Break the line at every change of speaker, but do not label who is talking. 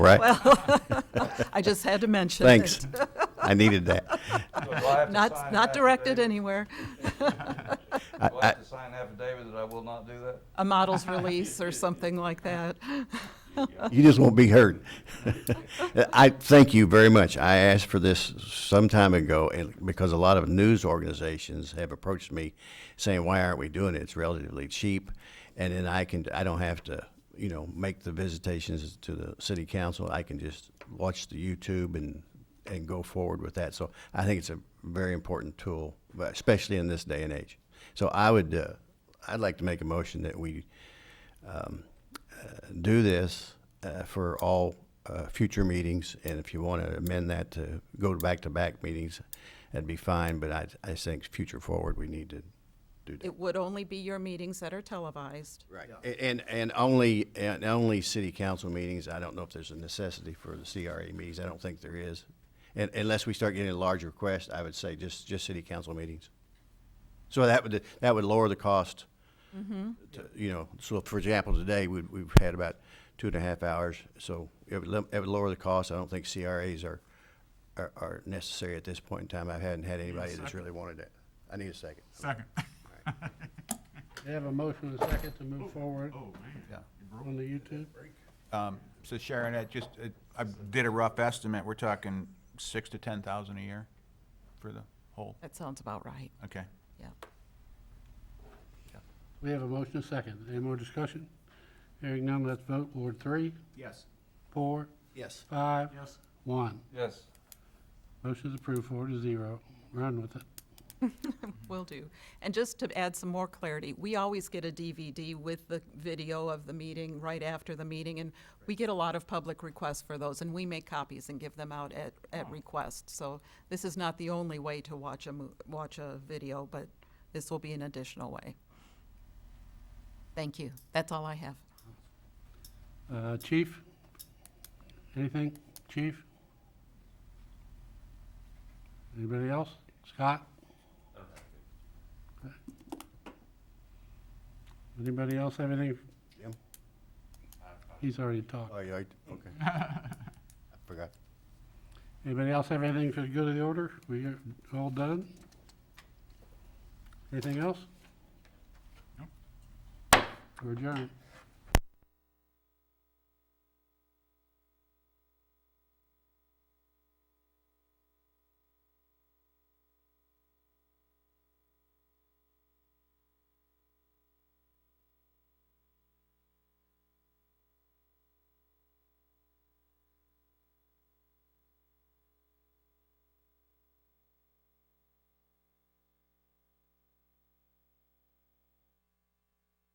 right?
Well, I just had to mention it.
Thanks. I needed that.
So do I have to sign
Not,
an
not directed
affidavit?
anywhere.
Do I have to sign an affidavit that I will not do that?
A model's release or something like that.
You just won't be hurt. I thank you very much. I asked for this some time ago and because a lot of news organizations have approached me saying, why aren't we doing it? It's relatively cheap. And then I can, I don't have to, you know, make the visitations to the city council. I can just watch the YouTube and, and go forward with that. So I think it's a very important tool, but especially in this day and age. So I would, uh, I'd like to make a motion that we um, do this uh, for all uh, future meetings, and if you want to amend that to go to back-to-back meetings, that'd be fine, but I, I think future forward, we need to do that.
It would only be your meetings that are televised.
Right. And, and only, and only city council meetings, I don't know if there's a necessity for the CRA meetings, I don't think there is. And unless we start getting a large request, I would say just, just city council meetings. So that would, that would lower the cost. to- You know, so for example, today, we, we've had about two and a half hours, so it would, lim- it would lower the cost. I don't think CRAs are, are, are necessary at this point in time. I hadn't had anybody that's really wanted it. I need a second.
Second.
They have a motion and a second to move forward
Yeah.
on the YouTube.
Um, So Sharon, I just, it- I did a rough estimate, we're talking six to ten thousand a year for the whole,
That sounds about right,
okay.
yeah.
We have a motion and a second. Any more discussion? Hearing none, let's vote. Ward three,
Yes.
four,
Yes.
five,
Yes.
one.
Yes.
Motion is approved, four to zero. Run with it.
Will do. And just to add some more clarity, we always get a DVD with the video of the meeting right after the meeting, and we get a lot of public requests for those, and we make copies and give them out at, at request. So this is not the only way to watch a, mo- watch a video, but this will be an additional way. Thank you. That's all I have.
Uh, Chief? Anything? Chief? Anybody else? Scott? Okay. Anybody else have anything?
Jim?
He's already talked.
Oh, you, alright? okay. I forgot.
Anybody else have anything for the good of the order? We are all done? Anything else?
Nope.
We're adjourned.